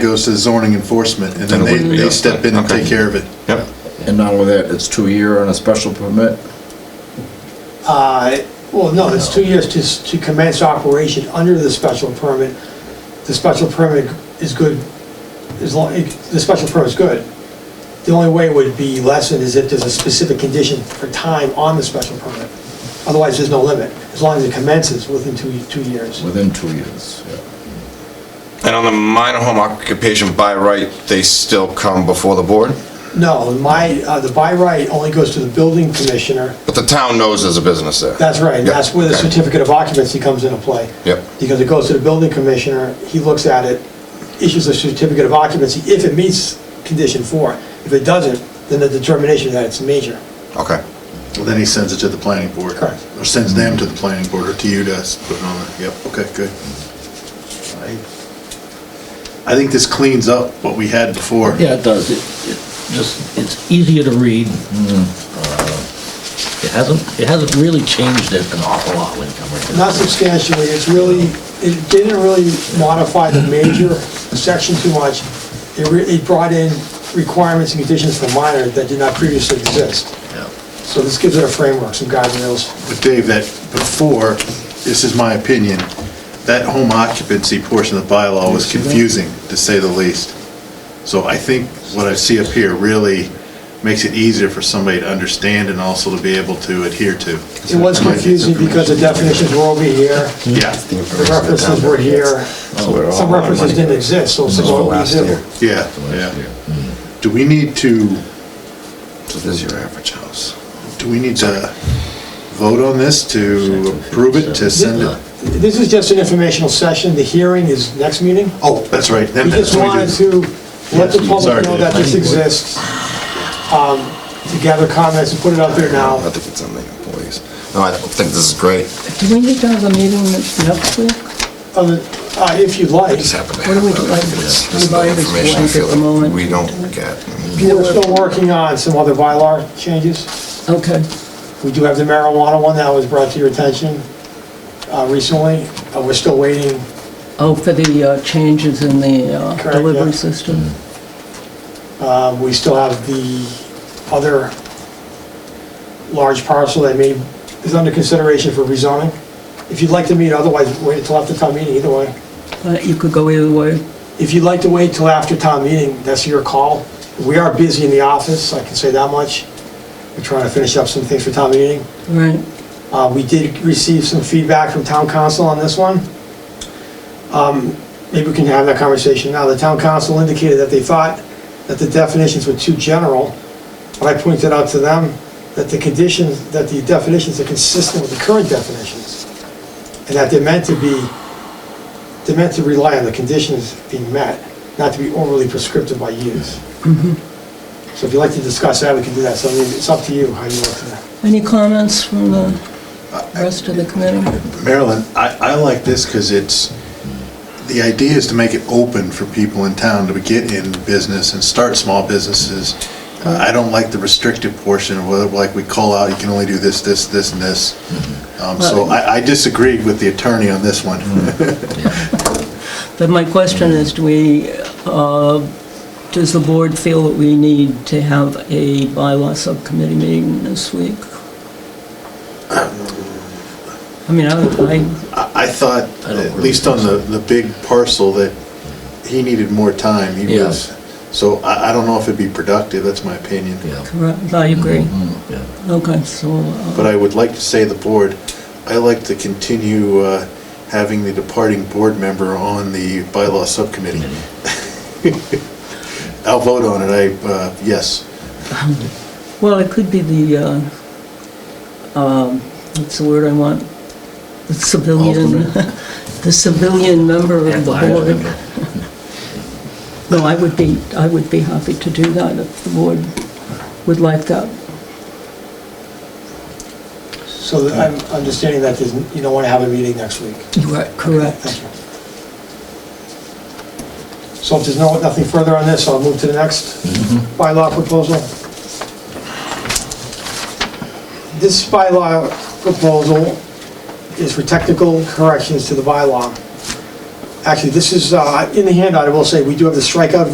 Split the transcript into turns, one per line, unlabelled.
goes to zoning enforcement, and then
Then it
they,
wouldn't be
they
us,
step in and
okay.
take care of it.
Yep,
And not only that, it's two-year on a special permit.
Uh, Well, no, it's two years to to commence operation under the special permit. The special permit is good, as long, the special permit's good. The only way it would be lessened is if there's a specific condition for time on the special permit. Otherwise, there's no limit, as long as it commences within two, two years.
Within two years, yeah.
and on the minor home occupation by right, they still come before the board?
No, my, uh, the by right only goes to the building commissioner.
But the town knows there's a business there?
That's right,
Yeah,
that's where the
okay.
certificate of occupancy comes into play.
Yep.
Because it goes to the building commissioner, he looks at it, issues a certificate of occupancy if it meets condition four. If it doesn't, then the determination that it's major.
Okay,
Well, then he sends it to the planning board.
Correct.
Or sends them to the planning board, or to you to us, put it on there. Yep, okay, good. I I think this cleans up what we had before.
Yeah, it does. It, it just, it's easier to read. Uh, It hasn't, it hasn't really changed it an awful lot when it comes to.
Not substantially, it's really, it didn't really modify the major section too much. It, re- it brought in requirements and conditions for minor that did not previously exist. So this gives it a framework, some guardrails.
But Dave, that before, this is my opinion, that home occupancy portion of the bylaw was confusing, to say the least. So I think what I see up here really makes it easier for somebody to understand and also to be able to adhere to.
It was confusing because the definitions were over here,
Yeah,
the references were here, some references didn't exist, so it's like, what we do.
yeah, yeah. Do we need to,
so this is your average house.
do we need to vote on this, to approve it, to send it?
This is just an informational session, the hearing is next meeting.
Oh, that's right. then
We just
that's what
wanted
do.
to let the
Sorry,
public know that this
Dave.
exists, um, to gather comments and put it out there now.
I think it's on the employees. No, I think this is great.
Do we need to have a meeting next week?
Other- uh, If you'd like,
Just happened to
What do
have
we
that.
do, like,
It's- this is the
everybody's
information I
blank at
feel
the
like
moment?
We don't get.
we're still working on some other Mylar changes.
Okay,
We do have the marijuana one that was brought to your attention uh, recently, Uh, we're still waiting
oh, for the uh, changes in the uh,
Correct,
delivery
yeah.
system?
Uh, We still have the other large parcel that may, is under consideration for rezoning. If you'd like to meet, otherwise wait until after town meeting, either way.
Uh, You could go either way.
If you'd like to wait till after town meeting, that's your call. We are busy in the office, I can say that much. We're trying to finish up some things for town meeting.
Right,
Uh, We did receive some feedback from town council on this one. Um, Maybe we can have that conversation now. The town council indicated that they thought that the definitions were too general, but I pointed out to them that the conditions, that the definitions are consistent with the current definitions, and that they're meant to be, they're meant to rely on the conditions being met, not to be overly prescriptive by use. So if you'd like to discuss that, we can do that. So I mean, it's up to you how you want to.
any comments from the rest of the committee?
Marilyn, I, I like this because it's, the idea is to make it open for people in town to get in business and start small businesses. Uh, I don't like the restrictive portion of whether, like, we call out, you can only do this, this, this, and this.
Mm-hmm.
Um, So I, I disagreed with the attorney on this one.
Mm-hmm.
But my question is, do we, uh, does the board feel that we need to have a bylaw subcommittee meeting this week? I mean, I, I-
I I thought,
I don't
at least on the, the big parcel, that he needed more time. He
Yeah.
was, so I, I don't know if it'd be productive, that's my opinion.
correct, I agree.
yeah.
Okay, so, uh,
But I would like to say the board, I like to continue uh, having the departing board member on the bylaw subcommittee. I'll vote on it, I, uh, yes.
well, it could be the, uh, um, what's the word I want? The civilian, the civilian member of the board. No, I would be, I would be happy to do that if the board would like that.
So that I'm understanding that there's- you don't want to have a meeting next week?
You are
Thank
correct.
you. So if there's no, nothing further on this, I'll move to the next bylaw proposal. This bylaw proposal is for technical corrections to the bylaw. Actually, this is, uh, in the handout, I will say, we do have the strikeout